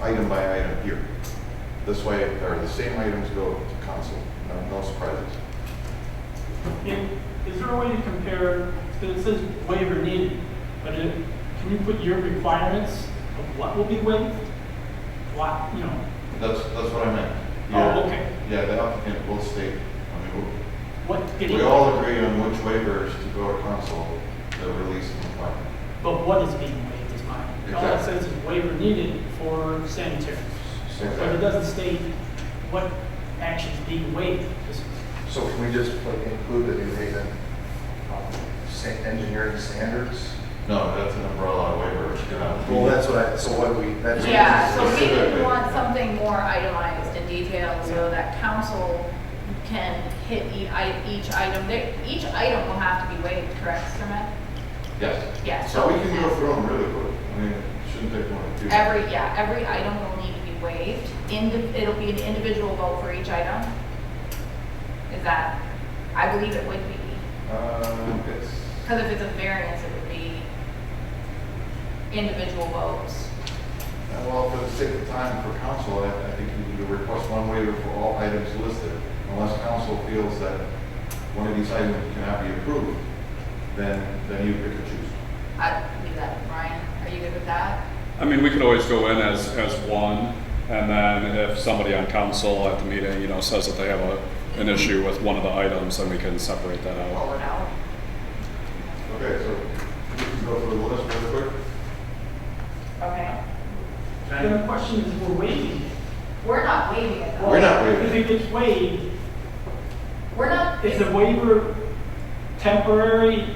item by item here. This way, or the same items go to council, No- no surprises. Can- Is there a way to compare, because it says waiver needed, but it, can you put your requirements of what will be waived? What, you know, That's, that's what I meant. Oh, Yeah. okay. Yeah, the applicant will state, I mean, we- what getting, we all agree on which waivers to go to council, the release and compliance. but what is being waived is mine. All it Exactly. says is waiver needed for sanitary. But it Exactly. doesn't state what actions being waived. Just- So can we just like, include the New Haven um, sa- engineering standards? No, that's an umbrella waiver. you know. Well, that's what I, so what we, that's. Yeah, so we Specifically. would want something more itemized and detailed so that council can hit e- i- each item. They- Each item will have to be weighed, correct, Sir Matt? Yes. Yeah, So so we can go through them really quick. I mean, it shouldn't take more than two. Every, yeah, every item will need to be weighed. Indi- It'll be an individual vote for each item. Is that, I believe it would be, Um, it's, because if it's a variance, it would be individual votes. uh, well, for the sake of time for council, I, I think you need to request one waiver for all items listed. Unless council feels that one of these items cannot be approved, then, then you pick and choose. I believe that, Ryan, are you good with that? I mean, we could always go in as, as one, and then if somebody on council at the meeting, you know, says that they have a, an issue with one of the items, then we can separate that out. Roll it out. Okay, so we can go through the list real quick. Okay. The question is, we're waiving it. We're not waiving it though. We're not waiving If it. it gets waived, We're not, Is the waiver temporary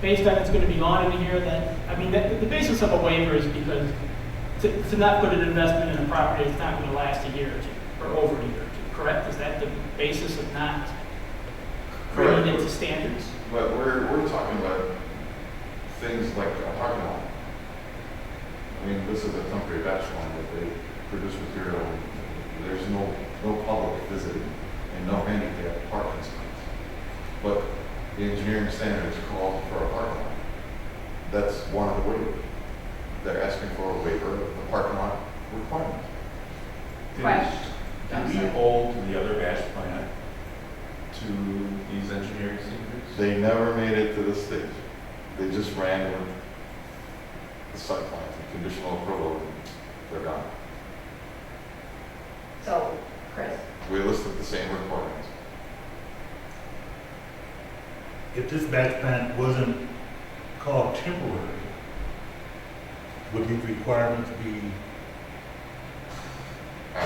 based on it's going to be gone in here that, I mean, the, the basis of a waiver is because to, to not put an investment in a property that's not going to last a year or two, or over a year or two, correct? Is that the basis of not creating it to standards? But we're, we're talking about things like a parking lot. I mean, this is a temporary batch line that they produce material. There's no, no public visiting and no handicap parking space. But the engineering standards call for a parking lot. That's one of the waivers. They're asking for a waiver of the parking lot requirement. Right. Did we hold the other batch plant to these engineering standards? They never made it to the stage. They just ran with the site plan, the conditional approval, and they're gone. so, Chris, We listed the same requirements. if this batch plant wasn't called temporary, would these requirements be,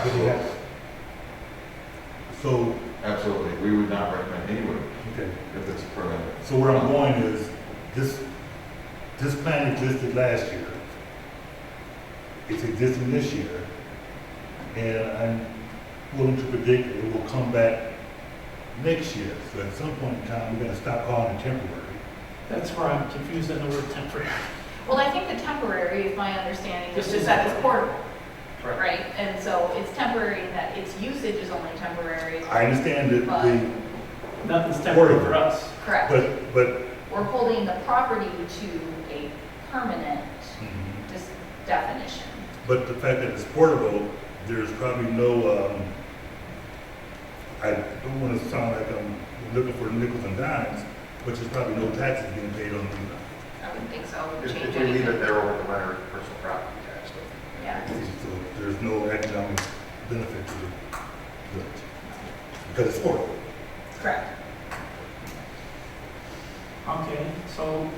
would they have? So, Absolutely, we would not recommend anyone okay, if it's a permanent. so where I'm going is, this, this plant existed last year. It's existing this year, and I'm willing to predict it will come back next year. So at some point in time, we're gonna stop calling it temporary. That's where I'm confused on the word temporary. well, I think the temporary is my understanding, This is just is- that it's portable, right? And so it's temporary in that its usage is only temporary, I understand that the, Nothing's temporary for Portable. us. correct? but, but We're holding the property to a permanent hmm. dis- definition. But the fact that it's portable, there's probably no, um, I don't want to sound like I'm looking for nickels and dimes, but there's probably no taxes being paid on these. I wouldn't think so, it would If change if we leave it anything. there over the winter, personal property tax. though. Yeah, So there's no economic benefit to the village. Because it's portable. correct. Okay, so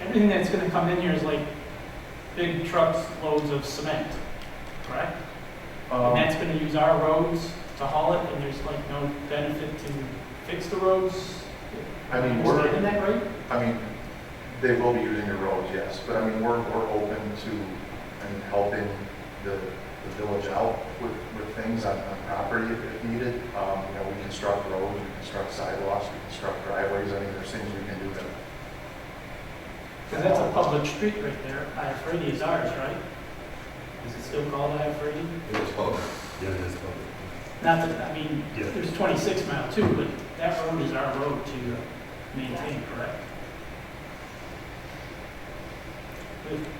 everything that's going to come in here is like big trucks loads of cement, correct? And Um, that's gonna use our roads to haul it, and there's like no benefit to fix the roads? I mean, Am we're- Understanding that right? I mean, they will be using the roads, yes, but I mean, we're, we're open to, I mean, helping the, the village out with, with things on, on property if if needed. Um, you know, we construct roads, we construct sidewalks, we construct driveways, I mean, there's things we can do that. Because that's a public street right there, Iafredi is ours, right? Is it still called Iafredi? It was public. Yeah, it is portable. Not that, I mean, Yeah. there's 26 mile too, but that road is our road to maintain, correct? But